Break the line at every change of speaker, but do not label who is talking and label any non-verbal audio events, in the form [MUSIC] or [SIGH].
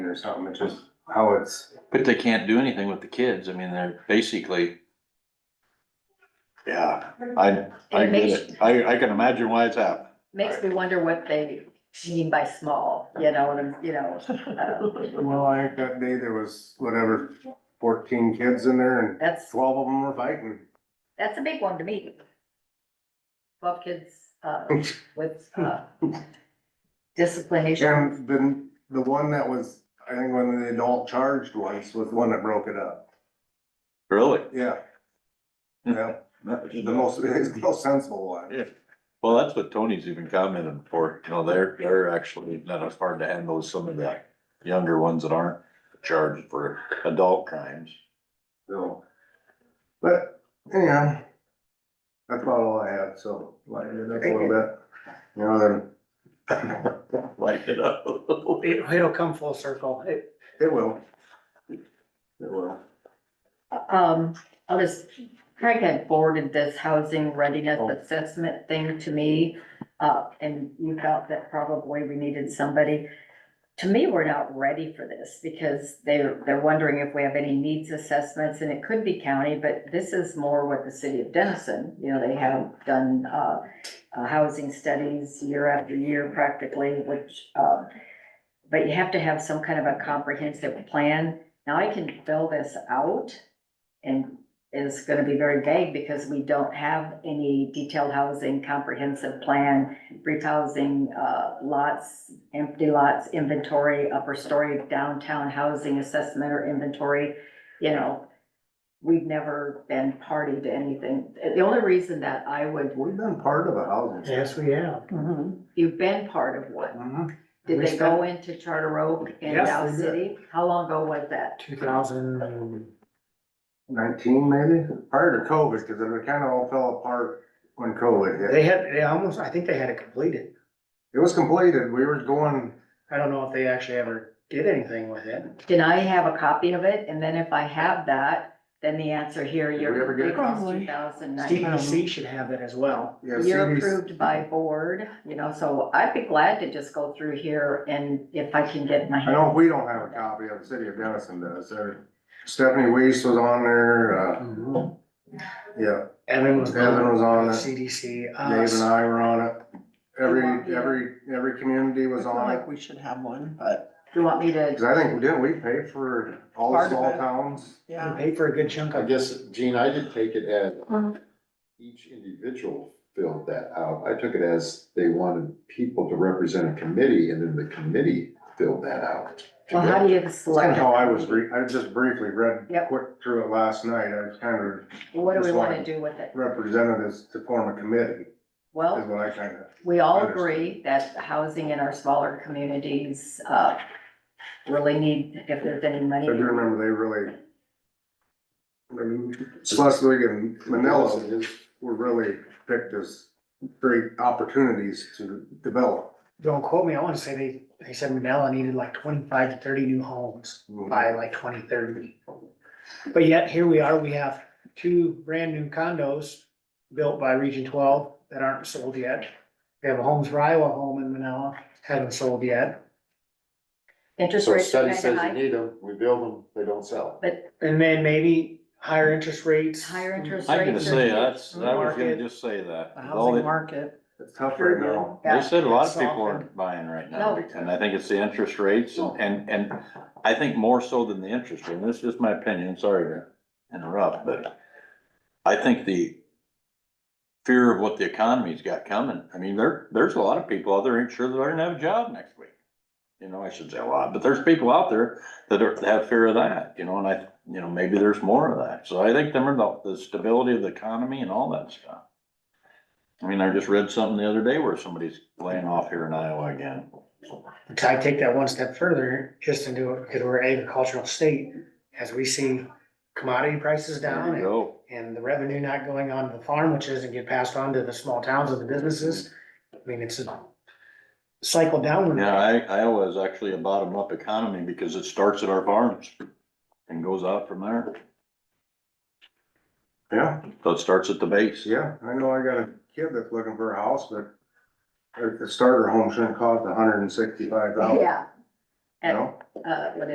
or something, it's just how it's,
But they can't do anything with the kids. I mean, they're basically,
Yeah, I, I
And it
get
makes-
it. I, I can imagine why it's happened.
Makes me wonder what they mean by small, you know, and, you know.
[LAUGHS]
uh,
well, I think that day there was whatever, fourteen kids in there and
That's,
twelve of them were fighting.
that's a big one to me. Twelve kids,
[LAUGHS]
uh, with, uh, discipline issues.
And then the one that was, I think one of the adult charged once was the one that broke it up,
really.
yeah. Yeah, the most, [LAUGHS] it's the most sensible one.
Well, that's what Tony's even commented for, you know, they're, they're actually not as hard to handle as some of the younger ones that aren't charged for adult crimes.
So, but anyhow, that's about all I had, so lighten it up a little bit. You know, then,
[LAUGHS] Light it up.
It, it'll come full circle. It-
it will. It will.
Um, I was, Craig had forwarded this housing readiness assessment thing to me. Uh, and you felt that probably we needed somebody. To me, we're not ready for this because they're, they're wondering if we have any needs assessments and it could be county, but this is more what the city of Denison, you know, they have done, uh, uh, housing studies year after year practically, which, uh, but you have to have some kind of a comprehensive plan. Now I can fill this out and it's gonna be very vague because we don't have any detailed housing, comprehensive plan, brief housing, uh, lots, empty lots, inventory, upper story, downtown housing assessment or inventory, you know. We've never been party to anything. The only reason that I would,
We've been part of a housing.
Yes, we have.
Mm-hmm.
you've been part of one.
Mhm.
Did
We
they go into Charter Oak and
Yes,
Dow
they did.
City? How long ago was that?
Two thousand,
Nineteen maybe, prior to COVID, cause it kinda all fell apart when COVID hit.
they had, they almost, I think they had it completed.
It was completed, we were going,
I don't know if they actually ever did anything with it.
Can I have a copy of it? And then if I have that, then the answer here,
Did we ever
you're,
get
it
a
costs
copy?
two thousand nine.
CPC should have that as well.
yeah,
You're
CDs,
approved by board, you know, so I'd be glad to just go through here and if I can get my.
I know we don't have a copy of, the city of Denison does, There- Stephanie Weiss was on there, uh,
Evan
yeah,
was.
Evan was on it,
CDC,
Uh,
Dave and
us,
I were on it. Every, every, every community was
feel
on it,
like we should have one, but
Do you want me
cause
to,
I think, didn't we pay for all the
Part of
small
it.
towns?
we
yeah.
paid for a good chunk
I
of it.
guess, Gene, I didn't take it as
Mhm.
each individual filled that out. I took it as they wanted people to represent a committee and then the committee filled that out.
well, how do you
That's
select?
kinda how I was, re- I just briefly read,
Yep.
quick through it last night, I was kind of
What do we
Just
wanna
like-
do with it?
representatives to form a committee, is
Well,
what I kinda.
we all
Understood.
agree that housing in our smaller communities, uh, really need, if there's any money.
I do remember they really. I mean, Schleswig and Manila
It is-
were really picked as great opportunities to develop.
Don't quote me, I wanna say they, they said Manila needed like twenty-five to thirty new homes by like twenty thirty. But yet, here we are, we have two brand new condos built by Region twelve that aren't sold yet. We have a Homes for Iowa home in Manila, haven't sold yet,
Interest
So a
rates are
study
kinda
says
high.
you need them, we build them, they don't sell.
and then maybe higher interest rates.
Higher interest
I'm gonna
rates. are
say,
huge.
that's, I was gonna
Market.
just say that.
The
With all
housing
the-
market.
It's tough right now.
uh, They
Yeah.
said a lot of people
Softened.
aren't buying right now,
No.
and I think it's the interest rates and, and, and I think more so than the interest rate, and this is just my opinion, sorry to interrupt, but I think the fear of what the economy's got coming, I mean, there, there's a lot of people out there ain't sure that they're gonna have a job next week. You know, I should say a lot, but there's people out there that are, that have fear of that, you know, and I, you know, maybe there's more of that, so I think them are the, the stability of the economy and all that stuff. I mean, I just read something the other day where somebody's laying off here in Iowa again.
Which I take that one step further, just into, it because we're an agricultural state, as we see commodity prices
There
down
you
and,
go.
and the revenue not going on to the farm, which doesn't get passed on to the small towns and the businesses. I mean, it's a cycle downward.
Yeah, I, Iowa is actually a bottom up economy because it starts at our farms and goes out from there.
Yeah,
So it starts at the base.
yeah, I know I got a kid that's looking for a house, but the starter home shouldn't cost a hundred and sixty-five thousand,
Yeah.
you know?
uh, what